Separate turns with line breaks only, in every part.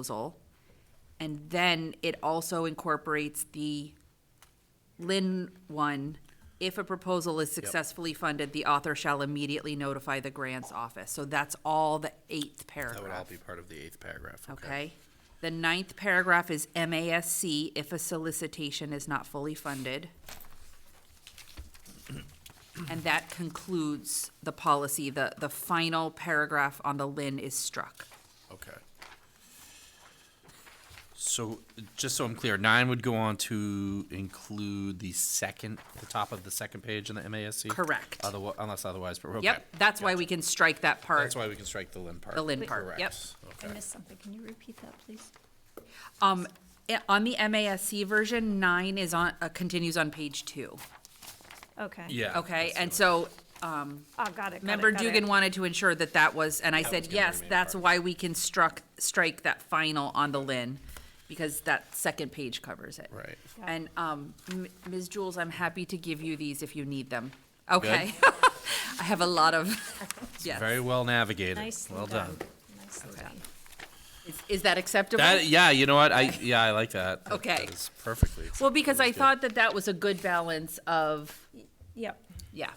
proposal. And then it also incorporates the Lynn one. If a proposal is successfully funded, the author shall immediately notify the grants office. So that's all the eighth
That would all
paragraph,
be part of the eighth paragraph, okay?
okay? The ninth paragraph is MASC if a solicitation is not fully funded. And that concludes the policy. The, the final paragraph on the Lynn is struck.
Okay. So, just so I'm clear, nine would go on to include the second, the top of the second page in the MASC?
Correct.
Otherwise, unless otherwise, but, okay.
Yep, that's why we can strike that part.
That's why we can strike the limb part.
The limb part,
Correct,
yep.
I
Okay,
missed something. Can you repeat that, please?
Um, i- on the MASC version, nine is on, uh, continues on page two,
Okay.
yeah.
okay?
that's
And
the-
so,
Oh, got it. got it,
member
got it.
Dugan wanted to ensure that that was, and I
was
said,
gonna
yes,
remain
that's
part.
why we can struck, strike that final on the Lynn, because that second page covers it.
Right.
Yeah.
And, um, M- Ms. Jules, I'm happy to give you these if you need them, okay? I have a lot of, yes.
Very well navigated.
Nicely
Well done.
Nicely done.
Is- Is that acceptable?
That, yeah, you know what? I, yeah, I like that. That-
Okay.
That is perfectly.
Well,
acceptable.
because I
That's good.
thought that that was a good balance of,
Yep.
yeah.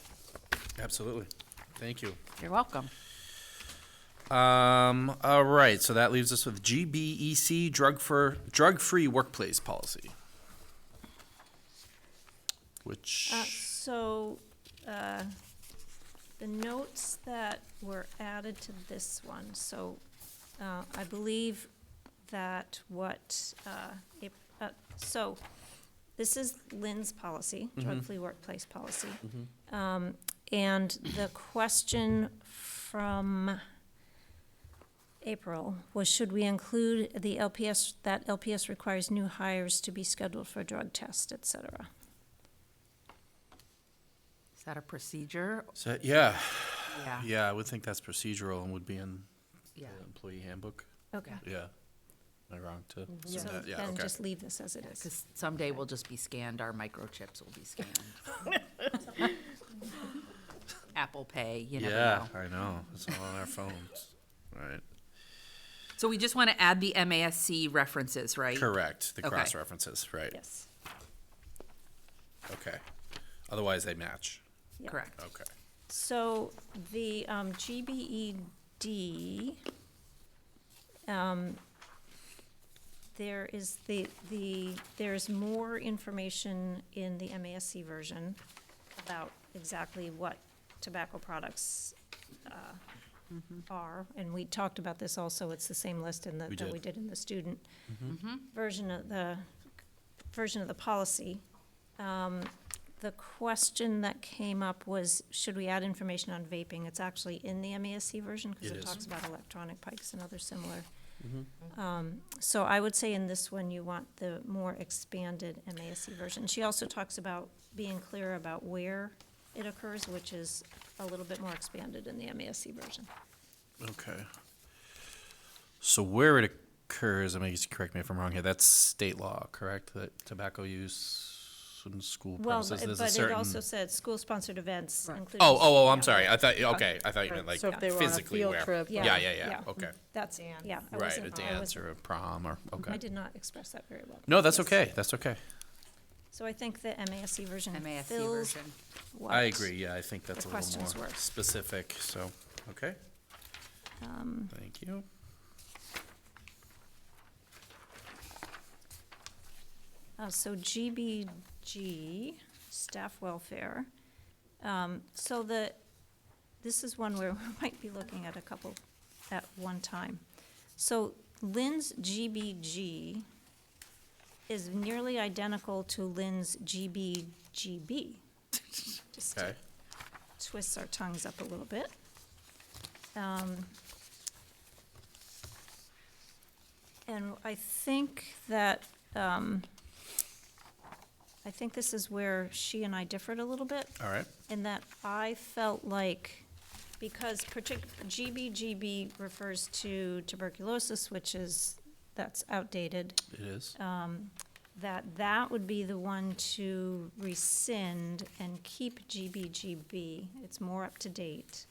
Absolutely. Thank you.
You're welcome.
Um, all right, so that leaves us with GBEC, drug for, drug-free workplace policy.
Uh,
Which,
So, uh, the notes that were added to this one, so uh, I believe that what, uh, if- uh, so, this is Lynn's policy, drug-free workplace policy. Um, And the question from April was, should we include the LPS, that LPS requires new hires to be scheduled for drug test, et cetera?
Is that a procedure?
so, yeah,
Yeah.
yeah, I would think that's procedural and would be in the
Yeah.
employee handbook.
Okay.
Yeah. Am I wrong to? say
Mm-hmm. So
that? Yeah,
then
okay.
just leave this as it is.
Because someday we'll just be scanned, our microchips will be scanned. Apple Pay, you never
Yeah,
know.
I know, it's all on our phones. Right,
So we just want to add the MASC references, right?
correct, the
Okay.
cross-references, right,
Yes,
okay. Otherwise, they match,
yeah.
Correct.
okay.
So the um, GBED, um, there is the, the, there's more information in the MASC version about exactly what tobacco products uh, are. And we talked about this also, it's the same list in the,
We
that we
did. Mm-hmm.
did in the student version of the, version of the policy. Um, The question that came up was, should we add information on vaping? It's actually in the MASC version, because
It
it
is. Mm-hmm.
talks about electronic pikes and other similar. Um, So I would say in this one, you want the more expanded MASC version. She also talks about being clear about where it occurs, which is a little bit more expanded in the MASC version.
Oh, Okay. So where it occurs, I mean, you can correct me if I'm wrong here, that's state law, correct? That tobacco use in school
Well,
premises,
but
there's a
but it
certain.
also said school-sponsored events, including.
Oh, oh, oh, I'm
Yeah.
sorry. I thought, okay, I thought you meant like
So if they were on a
physically
field
where.
trip or-
Yeah, yeah, yeah, okay.
That's, yeah. I
Right,
wasn't-
a
I
dance
wasn't-
or a prom or,
I
okay.
did not express that very well.
No, that's
Yes.
okay, that's okay.
So I think the MASC version
MASC
fills
version.
what.
I agree, yeah, I think that's a little
the questions
more
were.
specific, so, okay.
Um,
Thank you.
Uh, so GBG, staff welfare. Um, so the, this is one where we might be looking at a couple at one time. So Lynn's GBG is nearly identical to Lynn's GBGB. Just to
Okay,
twists our tongues up a little bit. Um, And I think that, um, I think this is where she and I differed a little bit,
all right,
in that I felt like, because partic, GBGB refers to tuberculosis, which is, that's outdated,
it is.
that that would be the one to rescind and keep GBGB. It's more up to date.